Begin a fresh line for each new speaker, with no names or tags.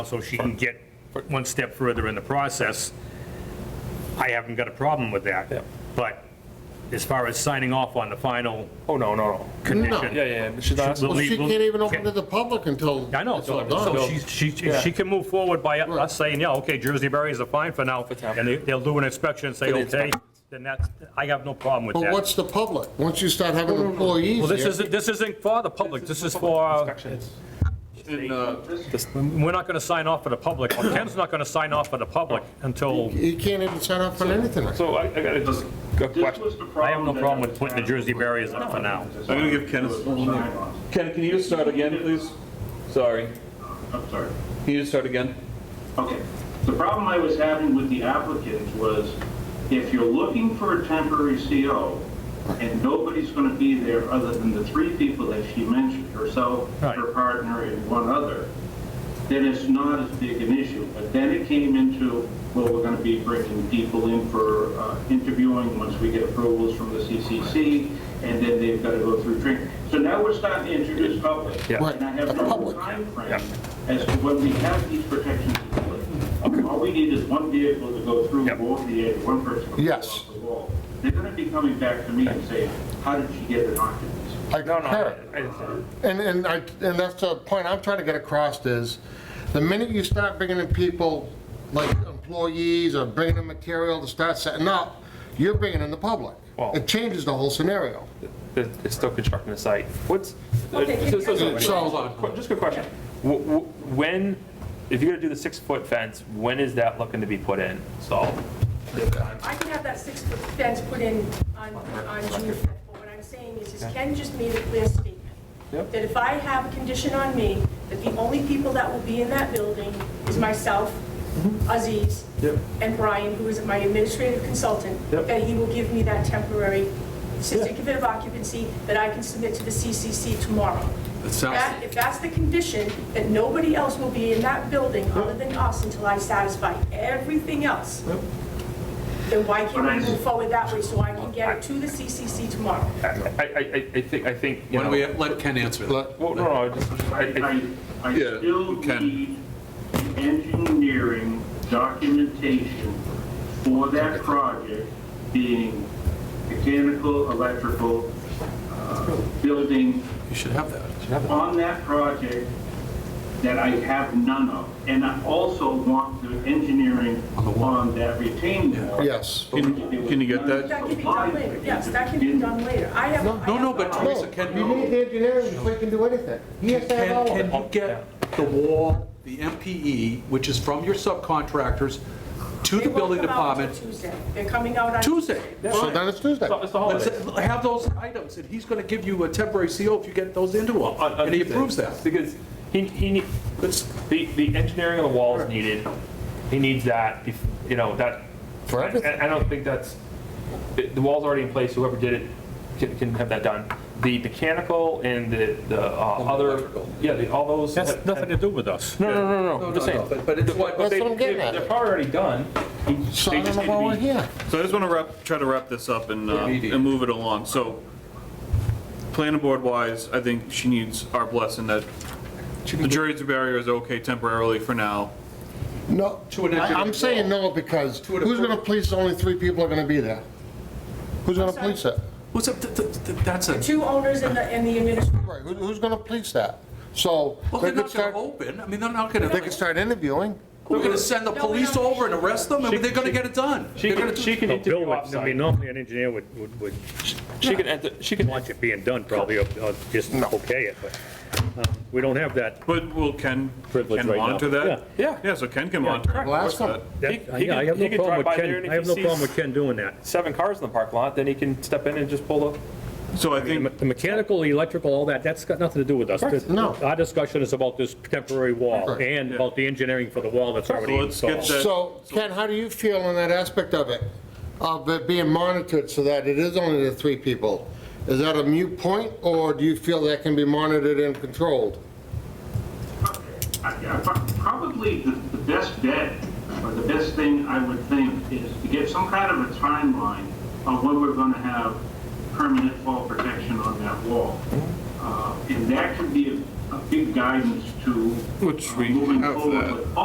so she can get one step further in the process, I haven't got a problem with
Yep.
that. But as far as signing off on the final
Oh, no, no, no.
condition.
Yeah, yeah, yeah, she's not,
We'll
no,
Well, she
leave- we'll-
can't even open to the public until.
I know,
it's all
so
done.
so she, she, if she can move forward by us saying, yeah, okay, Jersey berries are fine for now,
town.
and they- they'll do an inspection and say,
For the
okay,
inspection.
then that's, I have no problem with
But
that.
what's the public? Once you start having employees
Well, this
here-
isn't, this isn't for the public, this is
uh,
for, we're not gonna sign off for the public, or Ken's not gonna sign off for the public until,
You can't even sign up for anything.
so I, I gotta just, a question.
I have no problem with putting the Jersey berries up for now.
I'm gonna give Ken a.
Ken, can you just start again, please? Sorry,
I'm sorry.
can you just start again?
Okay. The problem I was having with the applicant was if you're looking for a temporary CO and nobody's gonna be there other than the three people that she mentioned, herself, her
Right.
partner, and one other, then it's not as big an issue. But then it came into, well, we're gonna be bringing people in for uh, interviewing once we get approvals from the CCC, and then they've gotta go through training. So now we're starting to introduce public.
Right,
And I have
the
no
public.
timeframe as to when we have these protections in place. All we need is one vehicle to go through, go over the edge, one person to go
Yes.
off the wall. They're gonna be coming back to me and saying, how did she get an occupancy?
I
No, no,
concur.
I-
And, and I, and that's the point I'm trying to get across is, the minute you start bringing in people, like employees or bringing in material to start setting up, you're bringing in the public.
Well-
It changes the whole scenario.
I- it's still constructing the site. What's, so,
Okay,
so, so,
keep
so,
going.
qu- just a quick question. Wh- wh- When, if you're gonna do the six-foot fence, when is that looking to be put in, So
I can have that six-foot fence put in on, on June 5th, but what I'm saying is, is Ken just made a clear statement.
Yep.
That if I have a condition on me, that the only people that will be in that building is myself, Aziz,
Mm-hmm. Yep.
and Brian, who is my administrative consultant,
Yep.
that he will give me that temporary certificate of occupancy that I can submit to the CCC tomorrow. That- If that's the condition, that nobody else will be in that building other than us until I satisfy everything else, then why can't we move forward that way so I can get it to the CCC tomorrow?
I, I, I- I think, I think, you
Why
know.
don't we let Ken answer that?
Well, no, no, I just, I- I-
I, I I
Yeah,
still
we can.
need the engineering documentation for that project being mechanical, electrical, uh, building,
You should have that.
on that project that I have none of. And I also want the engineering
On the wall.
on that retaining wall.
Yes.
Can
can you get that?
That can be done later, yes, that can be done later. I have. I
No, no,
have-
but
No,
Teresa, Ken,
you need the engineering before you can do anything. He has to have
Ken,
all of
can
it.
you get the wall, the MPE, which is from your subcontractors, to
They
the
won't
building
come out until
department
Tuesday. They're coming out on.
Tuesday?
So then it's Tuesday.
it's it's the
Let's
holiday.
Have those items, and he's gonna give you a temporary CO if you get those into him,
On- on
and he
Tuesday.
approves that.
Because he, he, need-
It's-
the, the engineering of the wall is needed, he needs that, if- you know, that.
For everything.
I I don't think that's, the the wall's already in place, whoever did it can, can have that done. The mechanical and the, the uh,
And the
other,
electrical.
yeah, the- all those.
That's
have-
nothing to do with us.
No, no, no, no, no,
No,
I'm just
no, no,
saying.
but- but it's
The-
what-
but
That's
they-
what I'm getting
they-
at.
They're probably already done. They just
Sign
need
them
to
while we're
be-
here.
So I just want to wrap, try to wrap this up and, uh,
Immediate.
and move it along. So, planning board wise, I think she needs our blessing that the jury's barrier is okay temporarily for now.
No,
To an
I- I'm
engineering
saying no because
To an
who's going to
approval.
police only three people are going to be there? Who's going to
sorry?
police it?
What's up, th- th- th- that's a,
Two owners and the, and the administrator.
Right, who- who's going to police that? So
well,
they
they're
could
not gonna
start,
open, I mean, they're not gonna,
they could
they're
start interviewing.
gonna send the
No, we
police
don't.
over and arrest them, and
She-
they're gonna
she-
get it done.
She
They're
can,
gonna-
she can
No, Bill
interview
would- I mean,
offsite.
normally an engineer would, would, would
She can, enter- she can,
want it being done probably, or or just okay it, but um, we don't have that.
But will Ken,
Privilege
Ken
right now.
monitor that?
Yeah.
Yeah, so Ken can monitor.
correct.
it.
Well, ask
What's
them.
that?
that-
He- he
yeah, I
can-
have
he
no
can
problem
drive
with
by there
Ken,
and if
I have
he
no
sees-
problem with Ken doing that.
seven cars in the parking lot, then he can step in and just pull the,
So I
The me-
think,
the mechanical, electrical, all that, that's got nothing to do with us. The-
No.
Our discussion is about this temporary wall
Correct.
and
Yeah.
about the engineering for the wall that's already
let's get
installed.
that-
So Ken, how do you feel on that aspect of it? Of it being monitored so that it is only the three people? Is that a mute point or do you feel that can be monitored and controlled?
I- I- uh, Probably the, the best bet, or the best thing I would think, is to get some kind of a timeline on when we're gonna have permanent fall protection on that wall. Uh, And that could be a, a big guidance to uh,
Which we
moving
have
forward
that.
with